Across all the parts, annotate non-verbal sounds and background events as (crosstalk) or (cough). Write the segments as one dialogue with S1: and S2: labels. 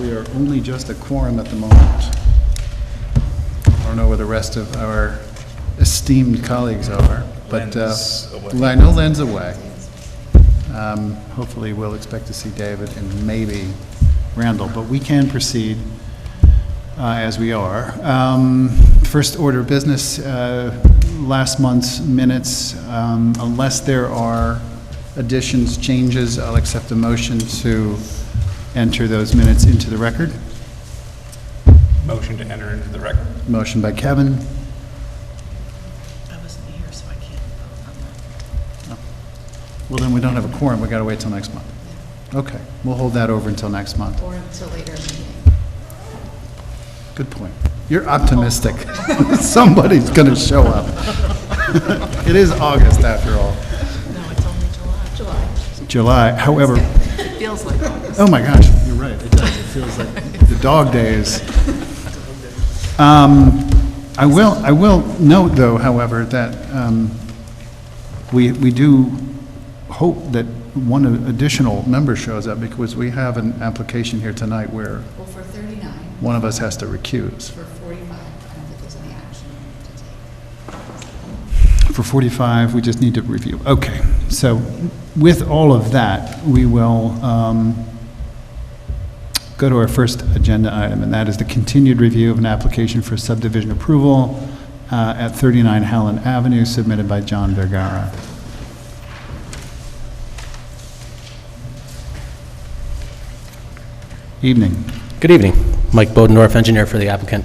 S1: we are only just a quorum at the moment. I don't know where the rest of our esteemed colleagues are, but, uh,
S2: Len's away.
S1: well, I know Len's away. Um, Hopefully, we'll expect to see David and maybe Randall, but we can proceed uh, as we are. Um, First order of business, uh, last month's minutes, um, unless there are additions, changes, I'll accept a motion to enter those minutes into the record.
S2: Motion to enter into the record.
S1: Motion by Kevin,
S3: I wasn't here, so I can't vote on that.
S1: well, then we don't have a quorum, we gotta wait till next month. Okay, we'll hold that over until next month.
S3: Or until later meeting.
S1: Good point. You're optimistic. (laughs) Somebody's going to show up. (laughs) It is August, after all.
S3: No, it's only July. July.
S1: July, however,
S3: Feels like August.
S1: oh my gosh, you're right, it does, it feels like the dog days. Um, I will, I will note, though, however, that um, we, we do hope that one additional member shows up, because we have an application here tonight where
S4: Well, for 39,
S1: one of us has to recuse.
S4: for 45, I don't think there's any action to take.
S1: For 45, we just need to review. Okay, so with all of that, we will um, go to our first agenda item, and that is the continued review of an application for subdivision approval uh, at 39 Howland Avenue submitted by John Vergara. Evening.
S5: Good evening. Mike Bodendorf, engineer for the applicant.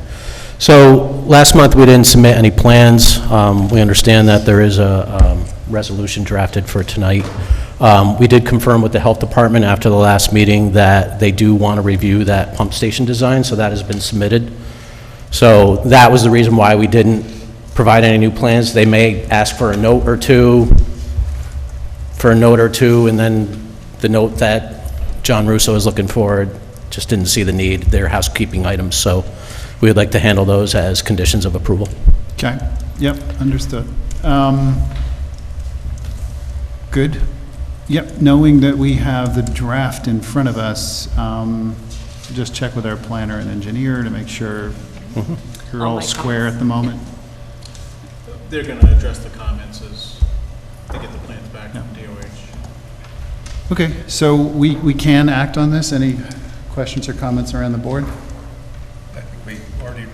S5: So, last month, we didn't submit any plans. Um, We understand that there is a um, resolution drafted for tonight. Um, We did confirm with the health department after the last meeting that they do want to review that pump station design, so that has been submitted. So, that was the reason why we didn't provide any new plans. They may ask for a note or two, for a note or two, and then the note that John Russo is looking for, just didn't see the need, they're housekeeping items, so we would like to handle those as conditions of approval.
S1: Okay, yep, understood. Um, Good. Yep, knowing that we have the draft in front of us, um, just check with our planner and engineer to make sure you're all square at the moment.
S6: They're gonna address the comments as they get the plans back from DOH.
S1: Okay, so we, we can act on this? Any questions or comments around the board?
S2: I think we already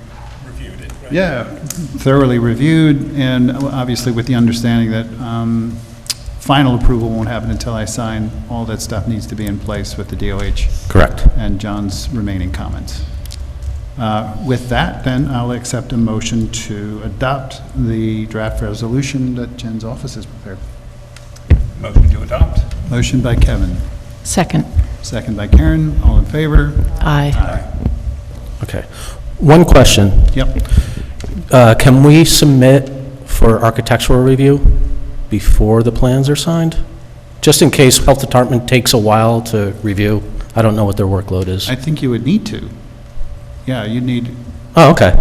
S2: reviewed it, right?
S1: Yeah, thoroughly reviewed, and obviously with the understanding that um, final approval won't happen until I sign. All that stuff needs to be in place with the DOH.
S5: Correct.
S1: and John's remaining comments. Uh, With that, then, I'll accept a motion to adopt the draft resolution that Jen's office has prepared.
S2: Motion to adopt.
S1: Motion by Kevin,
S3: Second.
S1: second by Karen, all in favor?
S3: Aye.
S5: Okay. One question,
S1: Yep.
S5: Uh, can we submit for architectural review before the plans are signed? Just in case health department takes a while to review, I don't know what their workload is.
S1: I think you would need to. Yeah, you'd need,
S5: Oh, okay,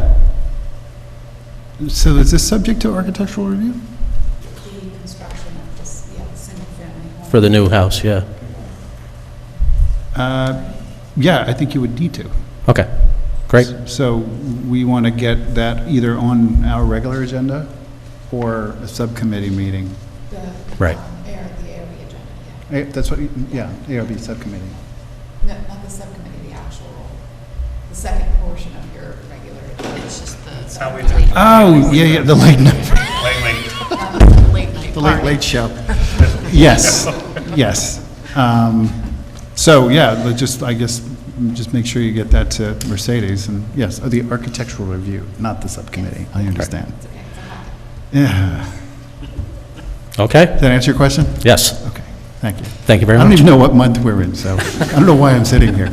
S1: so is this subject to architectural review?
S4: The construction of this, yeah, single-family home.
S5: for the new house, yeah,
S1: Uh, Yeah, I think you would need to.
S5: okay, great,
S1: So we want to get that either on our regular agenda or a subcommittee meeting.
S4: The,
S5: Right.
S4: um, Air, the area agenda, yeah.
S1: Eh, That's what, you- yeah, ARB subcommittee.
S4: No, not the subcommittee, the actual, the second portion of your regular agenda.
S3: It's just the
S2: How we do
S5: Ah,
S1: Oh, yeah, yeah, the late, night-
S2: lately.
S3: the late night
S1: the late,
S3: party.
S1: late show. Yes, yes. Um, So, yeah, let's just, I guess, just make sure you get that to Mercedes, and yes, oh, the architectural review, not the subcommittee, I understand.
S4: It's okay, it's a hot
S1: Yeah.
S5: okay,
S1: Did that answer your question?
S5: yes,
S1: Okay, thank you.
S5: thank you very
S1: I
S5: much.
S1: don't even know what month we're in, so I don't know why I'm sitting here.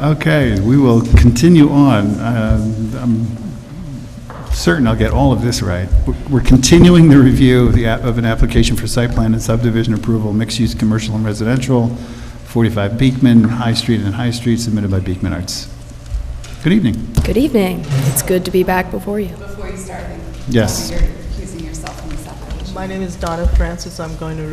S1: Okay, we will continue on. Um, I'm certain I'll get all of this right. We're- We're continuing the review of the, app- of an application for site plan and subdivision approval, mixed-use commercial and residential, 45 Beekman, High Street and High Street, submitted by Beekman Arts. Good evening.
S7: Good evening. It's good to be back before you.
S4: Before you start, I think,
S1: Yes.
S4: You're accusing yourself from this application.
S3: My name is Donna Francis. I'm going to